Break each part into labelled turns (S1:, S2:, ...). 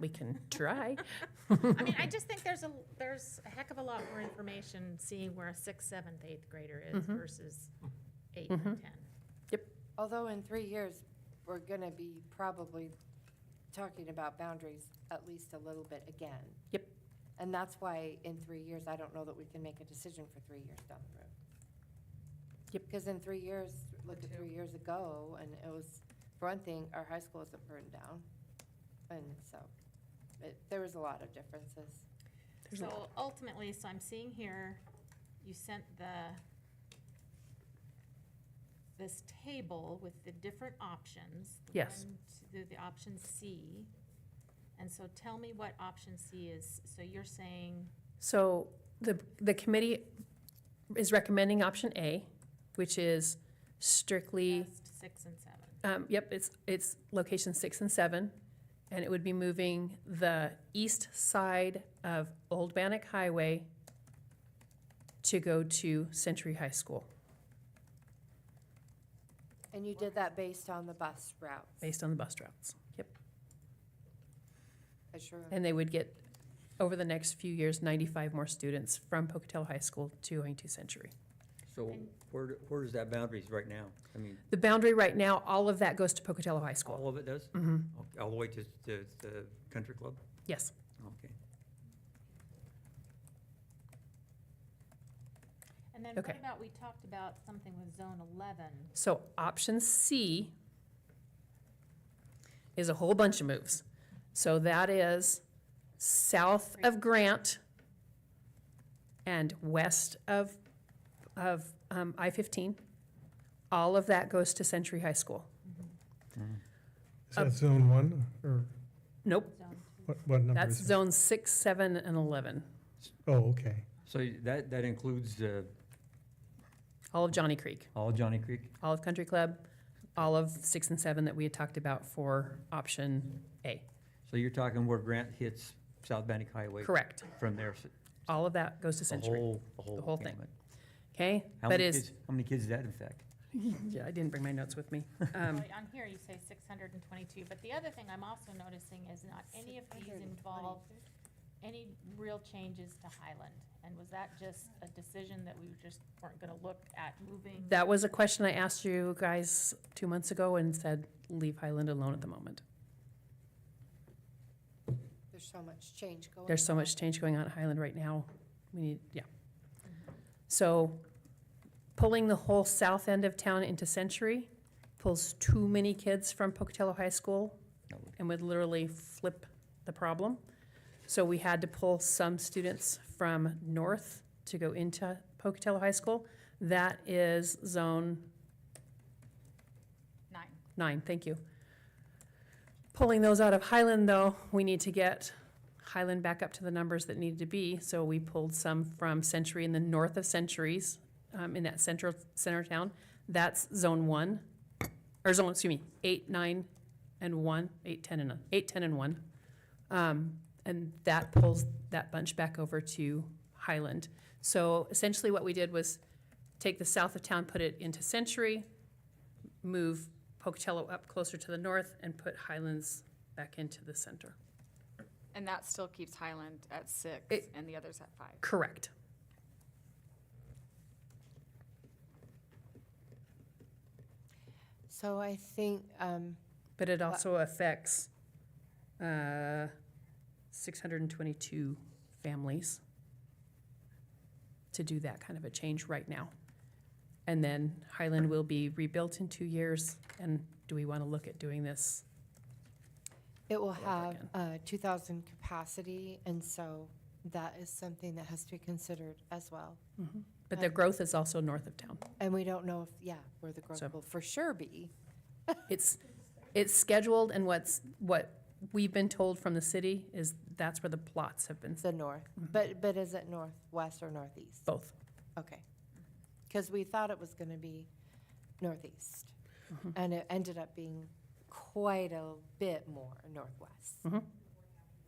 S1: we can try.
S2: I mean, I just think there's a, there's a heck of a lot more information seeing where a sixth, seventh, eighth grader is
S1: Mhm.
S2: versus eight and
S1: Mhm.
S2: ten.
S3: Although in three years, we're going to be probably talking about boundaries at least a little bit again.
S1: Yep.
S3: And that's why in three years, I don't know that we can make a decision for three years down the road.
S1: Yep.
S3: Because in three years, look at three years ago, and it was, for one thing, our high school isn't burned down. And so, it, there was a lot of differences.
S1: There's a
S2: So ultimately, so I'm seeing here, you sent the, this table with the different options. the
S1: Yes.
S2: one, two, The, the option C. And so tell me what option C is. So you're saying,
S1: So the, the committee is recommending option A, which is strictly,
S2: best six and seven.
S1: um, yep, it's, it's location six and seven. And it would be moving the east side of Old Bannock Highway to go to Century High School,
S3: And you did that based on the bus routes.
S1: based on the bus routes. Yep.
S3: I sure,
S1: And they would get, over the next few years, ninety-five more students from Pocatello High School to Ojai Century.
S4: So
S2: And-
S4: where, do- where is that boundaries right now? I mean,
S1: The boundary right now, all of that goes to Pocatello High School.
S4: all of it does?
S1: hmm
S4: Okay, All the way to, to the country club?
S1: yes.
S4: Okay.
S2: And then what
S1: Okay.
S2: about, we talked about something with zone eleven.
S1: So option C is a whole bunch of moves. So that is south of Grant and west of, of um, I-15. All of that goes to Century High School.
S5: Is
S1: Up.
S5: that zone one, or
S1: Nope,
S2: Zone
S5: what, what number
S1: that's
S5: is it?
S1: zone six, seven, and 11,
S5: Oh, okay.
S4: So that, that includes uh,
S1: all of Johnny Creek.
S4: all Johnny Creek?
S1: Olive Country Club, all of six and seven that we had talked about for option A.
S4: So you're talking where Grant hits South Bannock Highway?
S1: Correct.
S4: From there, s-
S1: All of that goes to
S4: the
S1: Century,
S4: whole, the whole.
S1: The whole thing.
S4: gamut.
S1: okay?
S4: How
S1: But
S4: many
S1: is,
S4: kids, how many kids does that affect?
S1: yeah, I didn't bring my notes with me. Um,
S2: Well, On here, you say six hundred and twenty-two, but the other thing I'm also noticing is not any of these
S3: 622.
S2: involve any real changes to Highland. And was that just a decision that we just weren't gonna look at moving?
S1: That was a question I asked you guys two months ago and said, leave Highland alone at the moment.
S3: there's so much change going on.
S1: There's so much change going on at Highland right now. We need, yeah. So pulling the whole south end of town into Century pulls too many kids from Pocatello High School
S4: That would-
S1: and would literally flip the problem. So we had to pull some students from north to go into Pocatello High School. That is zone
S2: Nine.
S1: nine, thank you. Pulling those out of Highland, though, we need to get Highland back up to the numbers that needed to be. So we pulled some from Century in the north of Centuries, um, in that central, center town. That's zone one, or zone, excuse me, eight, nine, and one, eight, ten, and, eight, ten, and one. Um, and that pulls that bunch back over to Highland. So essentially what we did was take the south of town, put it into Century, move Pocatello up closer to the north and put Highlands back into the center.
S6: And that still keeps Highland at six
S1: It-
S6: and the others at five.
S1: Correct.
S3: So I think, um,
S1: But it also affects uh, 622 families to do that kind of a change right now. And then Highland will be rebuilt in two years. And do we want to look at doing this?
S3: It will
S1: over
S3: have
S1: again.
S3: uh, 2,000 capacity, and so that is something that has to be considered as well.
S1: But the growth is also north of town.
S3: And we don't know if, yeah, where the growth
S1: So-
S3: will for sure be.
S1: It's, it's scheduled and what's, what we've been told from the city is that's where the plots have been,
S3: It's the north,
S1: Mm-hmm.
S3: but, but is it northwest or northeast?
S1: both.
S3: Okay. Because we thought it was going to be northeast,
S1: Mm-hmm.
S3: and it ended up being quite a bit more northwest.
S1: Mhm.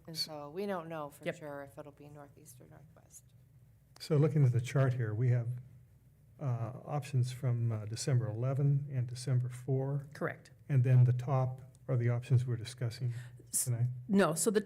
S3: And so we don't know for
S1: Yep.
S3: sure if it'll be northeast or northwest.
S5: So looking at the chart here, we have uh, options from uh, December 11 and December 4,
S1: Correct.
S5: and then the top are the options we're discussing
S1: S-
S5: tonight.
S1: No, so the